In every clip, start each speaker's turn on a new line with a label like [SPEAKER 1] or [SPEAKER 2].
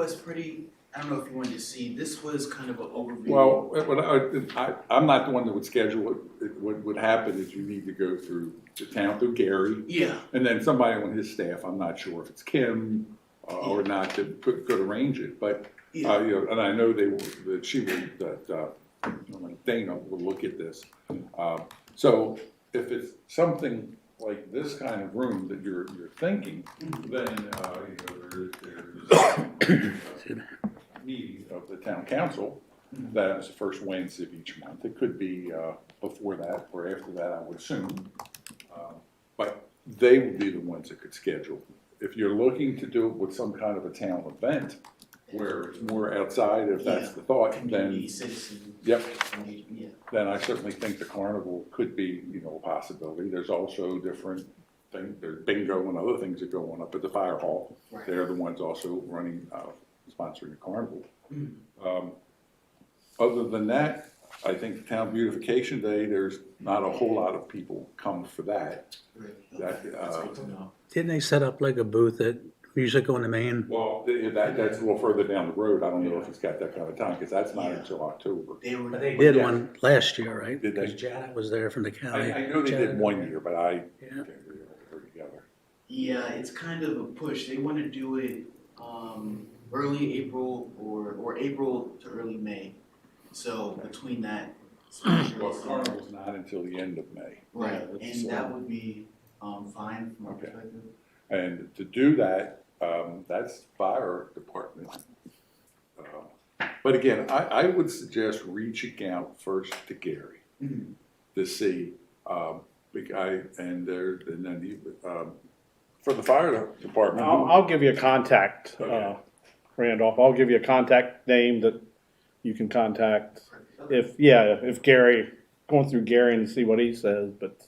[SPEAKER 1] was pretty, I don't know if you wanted to see, this was kind of an overview.
[SPEAKER 2] Well, it- what I, I, I'm not the one that would schedule it. it. What would happen is you need to go through the town, through Gary,
[SPEAKER 1] Yeah,
[SPEAKER 2] and then somebody on his staff, I'm not sure if it's Kim uh, or not, that could, could arrange it, but,
[SPEAKER 1] yeah,
[SPEAKER 2] uh, you know, and I know they, will- that she would, that, uh, Dana will look at this. Uh, So if it's something like this kind of room that you're, you're thinking, then, uh, you know, there, there's a meeting of the town council, that is the first Wednesday of each month. It could be, uh, before that or after that, I would assume. Uh, But they would be the ones that could schedule. If you're looking to do it with some kind of a town event, where it's more outside, if that's the thought, then
[SPEAKER 1] community, citizen.
[SPEAKER 2] Yep.
[SPEAKER 1] engagement, Yeah.
[SPEAKER 2] then I certainly think the carnival could be, you know, a possibility. There's also different things, there's bingo and other things that go on up at the fire hall.
[SPEAKER 1] Right.
[SPEAKER 2] They're the ones also running, uh, sponsoring the carnival.
[SPEAKER 1] Mm.
[SPEAKER 2] Um, Other than that, I think Town Beautification Day, there's not a whole lot of people come for that.
[SPEAKER 1] Right.
[SPEAKER 2] That,
[SPEAKER 1] Okay, That's
[SPEAKER 2] uh,
[SPEAKER 1] good to know.
[SPEAKER 3] Didn't they set up like a booth at Music on the Main?
[SPEAKER 2] Well, th- that, that's a little further down the road. I don't know if it's got that kind of time, because that's not
[SPEAKER 1] Yeah.
[SPEAKER 2] until October.
[SPEAKER 1] They were.
[SPEAKER 3] They did one last year, right?
[SPEAKER 2] Did they?
[SPEAKER 3] Because Janet was there from the
[SPEAKER 2] I,
[SPEAKER 3] county.
[SPEAKER 2] I know they did one year, but I
[SPEAKER 3] Yeah.
[SPEAKER 2] can't really remember together.
[SPEAKER 1] Yeah, it's kind of a push. They want to do it um, early April or, or April to early May. So between that.
[SPEAKER 2] Well, carnival's not until the end of May.
[SPEAKER 1] Right,
[SPEAKER 2] It's, uh,
[SPEAKER 1] and that would be um, fine from our
[SPEAKER 2] Okay.
[SPEAKER 1] perspective.
[SPEAKER 2] And to do that, um, that's fire department. Uh, But again, I, I would suggest reaching out first to Gary
[SPEAKER 1] Mhm.
[SPEAKER 2] to see, um, the guy, and there, and then he, um, for the fire department.
[SPEAKER 4] I'll, I'll give you a contact, uh,
[SPEAKER 2] Okay.
[SPEAKER 4] Randolph, I'll give you a contact name that you can contact.
[SPEAKER 1] Okay.
[SPEAKER 4] If, yeah, if Gary, going through Gary and see what he says, but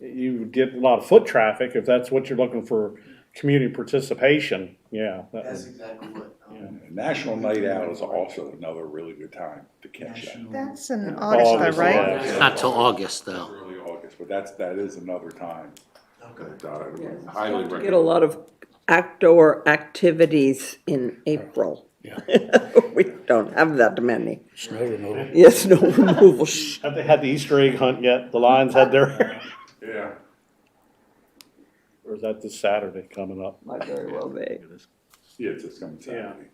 [SPEAKER 4] you get a lot of foot traffic, if that's what you're looking for, community participation, yeah. that
[SPEAKER 1] That's
[SPEAKER 4] would-
[SPEAKER 1] exactly what. um,
[SPEAKER 4] Yeah.
[SPEAKER 2] National Night Out is also another really good time to catch that.
[SPEAKER 1] national-
[SPEAKER 5] That's in August,
[SPEAKER 4] August,
[SPEAKER 5] though, right?
[SPEAKER 4] yeah.
[SPEAKER 3] Not till August, though.
[SPEAKER 2] Early August, but that's, that is another time
[SPEAKER 1] Okay.
[SPEAKER 2] that I would highly recommend.
[SPEAKER 6] Get a lot of outdoor activities in April. We don't have that many.
[SPEAKER 3] Snow removal.
[SPEAKER 6] Yes, no removal. Shh.
[SPEAKER 4] Have they had the Easter egg hunt yet? The Lions had their,
[SPEAKER 2] Yeah.
[SPEAKER 4] or is that this Saturday coming up?
[SPEAKER 6] Might very well be.
[SPEAKER 2] Yeah, it's just coming Saturday.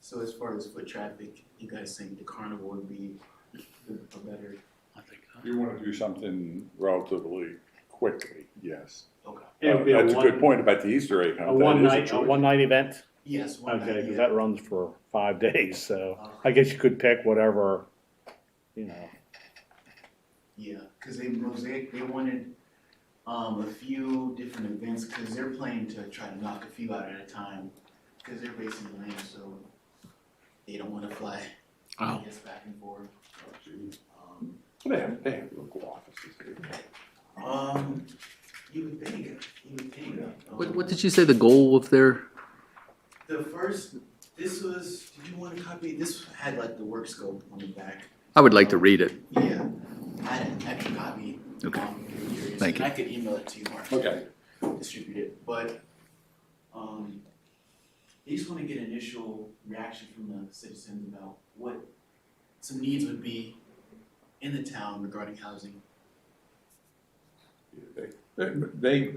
[SPEAKER 1] So as far as foot traffic, you guys think the carnival would be a better,
[SPEAKER 3] uh,
[SPEAKER 2] You wanna do something relatively quickly, yes.
[SPEAKER 1] okay,
[SPEAKER 4] It would be a
[SPEAKER 2] That's a good
[SPEAKER 4] one-
[SPEAKER 2] point about the Easter egg hunt.
[SPEAKER 4] A
[SPEAKER 2] That is
[SPEAKER 4] one night, a
[SPEAKER 2] choice.
[SPEAKER 4] one night event?
[SPEAKER 1] yes, one Uh, night,
[SPEAKER 4] Okay, because
[SPEAKER 1] yeah.
[SPEAKER 4] that runs for five days, so I guess you could pick whatever, you know.
[SPEAKER 1] Yeah, because they mosaic, they wanted um, a few different events because they're planning to try to knock a few out at a time because they're based in Atlanta, so they don't want to fly. I
[SPEAKER 3] Oh.
[SPEAKER 1] guess back and forth. Um,
[SPEAKER 2] Oh, They have, they have local offices here.
[SPEAKER 1] um, you would think, you would think. Um,
[SPEAKER 7] What, what did you say the goal of their,
[SPEAKER 1] The first, this was. Did you want to copy? This had like the work scope on the back.
[SPEAKER 7] I would like to read it.
[SPEAKER 1] Yeah, I had an extra copy.
[SPEAKER 7] Okay.
[SPEAKER 1] um, if you're curious,
[SPEAKER 7] Thank
[SPEAKER 1] and I could email it to you, Mark.
[SPEAKER 2] Okay,
[SPEAKER 1] distribute it, but, um, they just wanna get initial reaction from the citizens about what some needs would be in the town regarding housing.
[SPEAKER 2] they, they,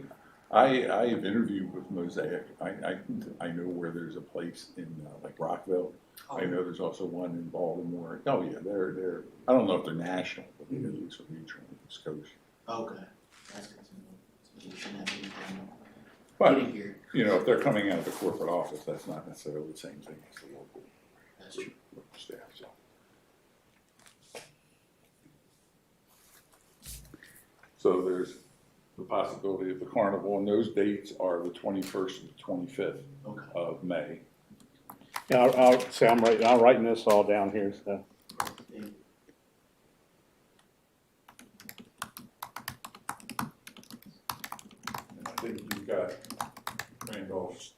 [SPEAKER 2] I, I have interviewed with Mosaic, I, I, I know where there's a place in, uh, like Rockville. I know there's also one in Baltimore, oh yeah, they're, they're, I don't know if they're national, but they're at
[SPEAKER 4] Mm-hmm.
[SPEAKER 2] least regional, Scotia.
[SPEAKER 1] Okay, that's good to know. So they shouldn't have any problem
[SPEAKER 2] But,
[SPEAKER 1] Getting here,
[SPEAKER 4] Mm-hmm.
[SPEAKER 2] you know, if they're coming out of the corporate office, that's not necessarily the same thing as the local,
[SPEAKER 1] that's true.
[SPEAKER 2] local staff, so. So there's the possibility of the carnival, and those dates are the twenty-first and the twenty-fifth
[SPEAKER 1] Okay,
[SPEAKER 2] of May.
[SPEAKER 4] Yeah, I'll, I'll, see, I'm writing, I'm writing this all down here, so.
[SPEAKER 1] Thank-
[SPEAKER 2] And I think you've got Randolph's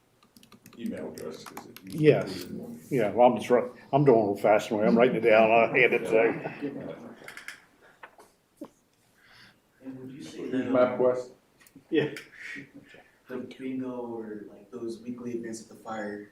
[SPEAKER 2] email address, is it?
[SPEAKER 4] Yes. Yeah, well, I'm just, wri- I'm doing it fashioned way, I'm writing it down, I'll hand it to you.
[SPEAKER 1] And would you say
[SPEAKER 2] Here's
[SPEAKER 1] that,
[SPEAKER 2] MapQuest.
[SPEAKER 4] Yeah.
[SPEAKER 1] the bingo or like those weekly events at the fire